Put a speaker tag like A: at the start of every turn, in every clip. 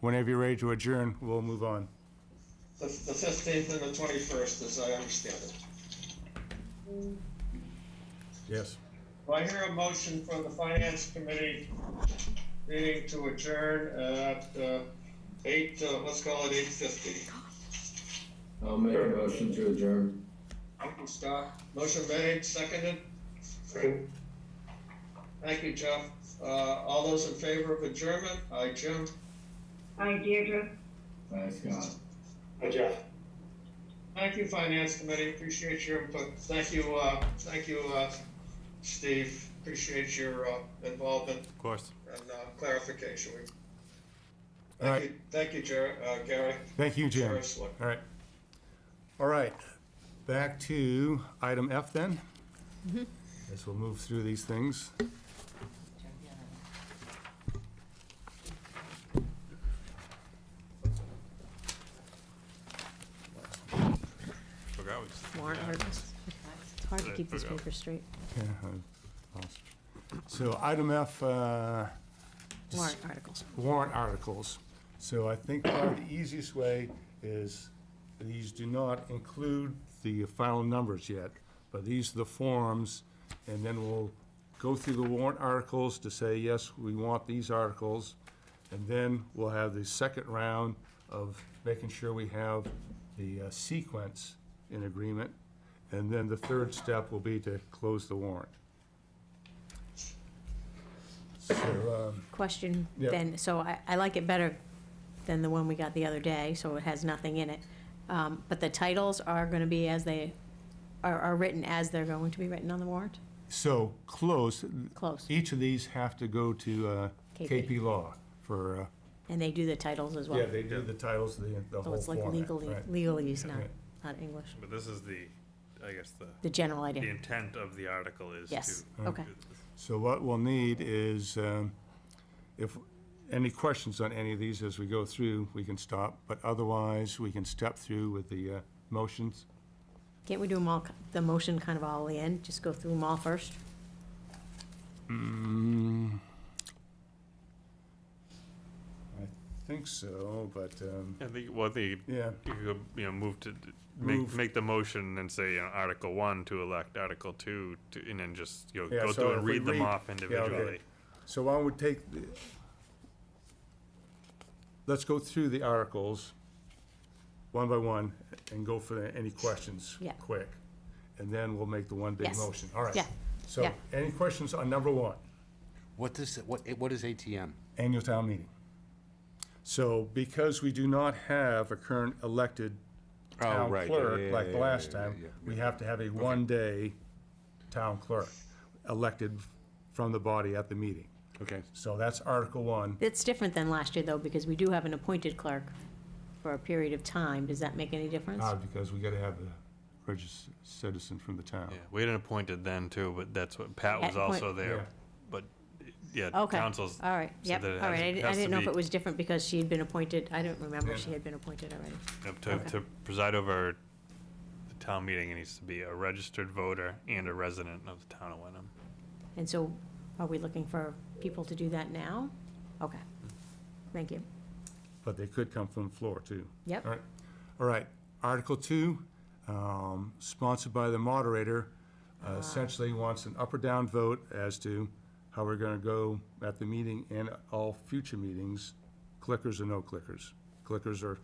A: whenever you're ready to adjourn, we'll move on.
B: The, the fifteenth and the twenty-first, as I understand it.
A: Yes.
B: Do I hear a motion from the finance committee meeting to adjourn at, uh, eight, uh, let's call it eight fifty?
C: I'll make a motion to adjourn.
B: Uncle Scott, motion made, seconded? Thank you, Jeff. Uh, all those in favor of adjournment? Aye, Jim?
D: Hi, Deirdre.
C: Thanks, Scott.
B: Thank you, Finance Committee, appreciate your input. Thank you, uh, thank you, uh, Steve, appreciate your, uh, involvement
A: Of course.
B: and, uh, clarification. We-
A: All
B: Thank
A: right.
B: you, thank you, Jer, uh, Gary.
A: Thank you, Jim.
B: Jerry Slick.
A: All right. All right, back to item F then.
E: Mm-hmm.
A: Guess we'll move through these things.
F: Forgot we
E: warrant articles. It's hard to keep these papers straight.
A: Yeah, I lost. So item F, uh,
E: Warrant articles.
A: warrant articles. So I think probably the easiest way is, these do not include the final numbers yet, but these are the forms, and then we'll go through the warrant articles to say, yes, we want these articles, and then we'll have the second round of making sure we have the uh, sequence in agreement, and then the third step will be to close the warrant. So, um,
E: Question
A: Yep.
E: then, so I, I like it better than the one we got the other day, so it has nothing in it. Um, But the titles are going to be as they, are, are written as they're going to be written on the warrant?
A: so, close,
E: Close.
A: Each of these have to go to uh,
E: KP.
A: KP Law for,
E: And they do the titles as
A: uh,
E: well?
A: yeah, they do the titles, the the
E: So
A: whole
E: Oh, it's like e-,
A: format.
E: legally,
A: right.
E: legalese, not,
A: Yeah.
E: not English.
F: But this is the, I guess the,
E: The general
F: the
E: idea.
F: intent of the article is to.
E: Yes,
A: Oh,
E: okay.
F: do this.
A: So what we'll need is, um, if, any questions on any of these as we go through, we can stop. But otherwise, we can step through with the uh, motions.
E: Can't we do them all, ki- the motion kind of all in, just go through them all first?
A: I think so, but, um,
F: I think, well, the, you
A: yeah,
F: could, go, you know, move to, make,
A: Move.
F: make the motion and say, you know, Article one to elect Article two, to, and then just, you know,
A: Yeah,
F: go
A: so
F: through
A: if
F: and
A: we
F: read them
A: read-
F: off
A: yeah, okay.
F: individually.
A: so I would take, the- let's go through the articles, one by one, and go for the- any questions
E: Yeah.
A: quick. And then we'll make the one big
E: Yes.
A: motion. All right.
E: Yeah.
A: So
E: Yeah.
A: any questions on number one,
G: What does, what, what is ATM?
A: annual town meeting? So because we do not have a current elected town
G: Oh, right. Yeah, yeah,
A: clerk
G: yeah,
A: like
G: yeah,
A: the
G: yeah,
A: last
G: yeah,
A: time,
G: yeah,
A: we have to have a one-day town clerk elected from the body at the meeting.
G: Okay.
A: So that's Article One.
E: It's different than last year, though, because we do have an appointed clerk for a period of time. Does that make any difference?
A: Ah, because we gotta have a registered citizen from the town.
F: Yeah, we hadn't appointed then too, but that's what, Pat was
E: At point-
F: also there,
A: Yeah.
F: but, yeah,
E: Okay,
F: councils.
E: all right,
F: said
E: yep,
F: that it
E: all
F: has-
E: right. I di- I
F: has to
E: didn't know if
F: be
E: it was different because she had been appointed, I don't remember she had been appointed already.
F: up To, to preside over the town meeting, it needs to be a registered voter and a resident of the town of Wenham.
E: And so are we looking for people to do that now? Okay, thank you.
A: But they could come from the floor, too.
E: Yep.
A: All right, all right. Article two, um, sponsored by the moderator, uh, essentially wants an up or down vote as to how we're gonna go at the meeting and all future meetings, clickers or no clickers. Clickers are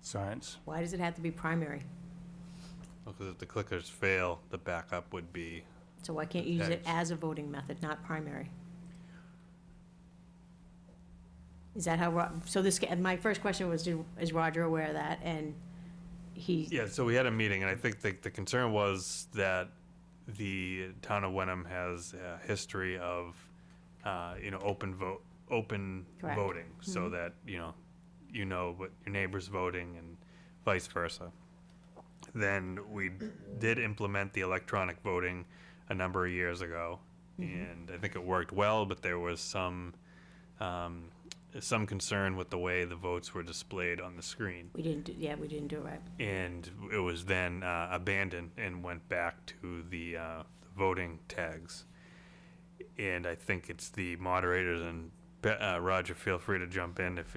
A: science.
E: Why does it have to be primary?
F: Because if the clickers fail, the backup would be,
E: So why can't you use it
F: Thanks.
E: as a voting method, not primary? Is that how, Ro- so this, and my first question was, do- is Roger aware of that? And he,
F: yeah, so we had a meeting, and I think the, the concern was that the town of Wenham has a history of, uh, you know, open vote, open
E: Correct.
F: voting, so that, you know, you know what your neighbor's voting and vice versa. Then we did implement the electronic voting a number of years ago, and I think it worked well, but there was some, um, some concern with the way the votes were displayed on the screen.
E: we didn't, do yeah, we didn't do it right.
F: and it was then uh, abandoned and went back to the uh, voting tags. And I think it's the moderators and Be- uh, Roger. Feel free to jump in if,